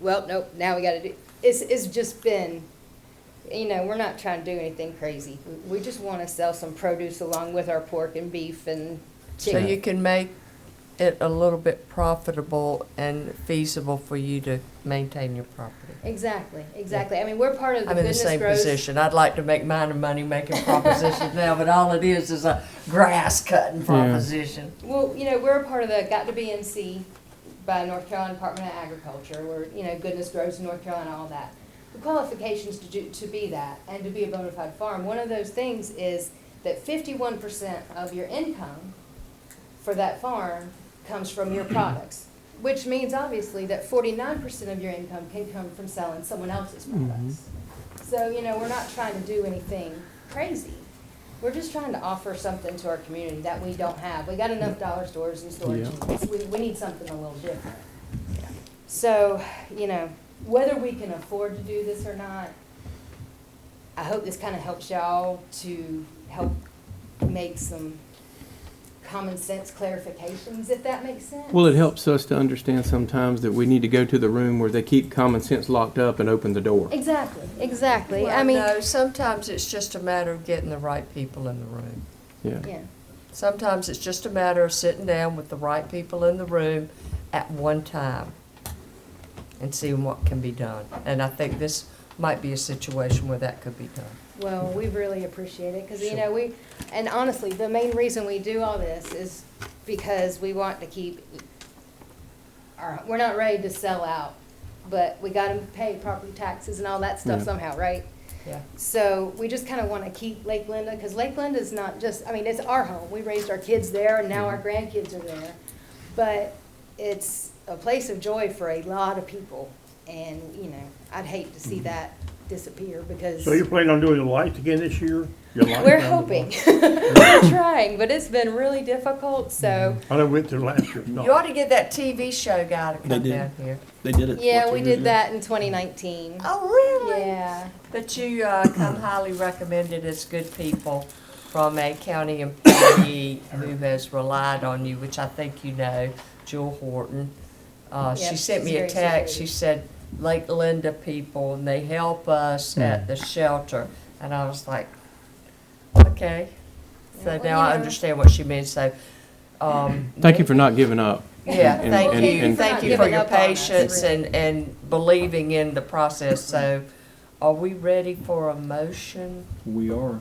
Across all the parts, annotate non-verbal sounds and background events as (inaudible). well, nope, now we gotta do, it's, it's just been, you know, we're not trying to do anything crazy. We- We just wanna sell some produce along with our pork and beef and So you chicken. can make it a little bit profitable and feasible for you to maintain your property. Exactly, exactly. I mean, we're part of the I'm in the Goodness same Grows. position. I'd like to make mine a money-making proposition now, but all it is is a grass-cutting proposition. Well, you know, we're a part of the Got to Be NC by North Carolina Department of Agriculture. We're, you know, Goodness Grows in North Carolina, all that. The qualifications to do, to be that and to be a bona fide farm, one of those things is that fifty-one percent of your income for that farm comes from your products, which means obviously that forty-nine percent of your income can come from selling someone else's products. So, you know, we're not trying to do anything crazy. We're just trying to offer something to our community that we don't have. We got enough dollar stores and storage Yeah. units. We, we need something a little different. So, you know, whether we can afford to do this or not, I hope this kind of helps y'all to help make some common sense clarifications, if that makes sense. Well, it helps us to understand sometimes that we need to go to the room where they keep common sense locked up and open the door. Exactly, exactly. I Well, mean, no, sometimes it's just a matter of getting the right people in the room. Yeah. yeah, Sometimes it's just a matter of sitting down with the right people in the room at one time and seeing what can be done. And I think this might be a situation where that could be done. well, we really appreciate it, because, you Sure. know, we, and honestly, the main reason we do all this is because we want to keep, our, we're not ready to sell out, but we got to pay property taxes and all that stuff Yeah. somehow, right? Yeah. So we just kind of want to keep Lake Linda, because Lake Linda is not just, I mean, it's our home. We raised our kids there, and now our grandkids are there. But it's a place of joy for a lot of people, and, you know, I'd hate to see that disappear, because So you're planning on doing the lights again this year? Your lights we're down the hoping. (laughs) We're trying, but it's been really difficult, so, block? I know we went through last year. You ought to get that TV show guy to come did. down here. They did Mm-hmm. it. yeah, what, we two years did ago? that in 2019. Oh, really? Yeah, But you (clears throat) uh, come highly recommended as good people from a county (coughs) employee who has relied on you, which I think you know, Jewel Horton. Uh, Yep, she sent she's me a very text. She supportive. said, Lake Linda people, and they help Hmm. us at the shelter. And I was like, okay. So Yeah, well, now I you know. understand what she means. So, um, Thank you for not giving up. yeah, And- thank and- you, and- thank you You're for not your giving up on us, patience really. and, and believing in the process, so are we ready for a motion, We are.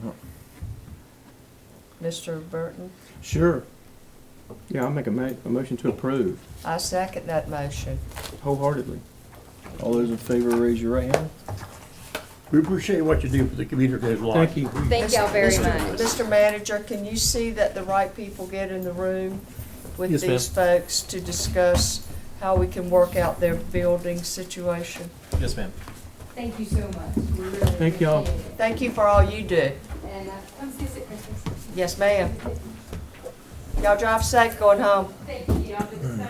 Mr. Burton? Sure. Yeah, I'll make a ma- a motion to approve I second that motion. wholeheartedly. All those in favor, raise your right hand. We appreciate what you do for the community that lights. Thank you. thank y'all very Mr. much. Mr. Manager, can you see that the right people get in the room with Yes, ma'am. these folks to discuss how we can work out their building situation? Yes, ma'am. Thank you so much. We really Thank y'all. appreciate it. Thank you for all you do. And uh, come see us at Christmas. Yes, ma'am. Y'all drive safe going home. Thank you. I'll do the same.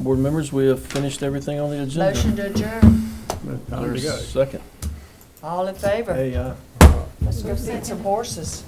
Board members, we have finished everything on the agenda. Motion to adjourn. Time to There's go. a Second. All in favor? Hey, uh, Let's go feed some horses.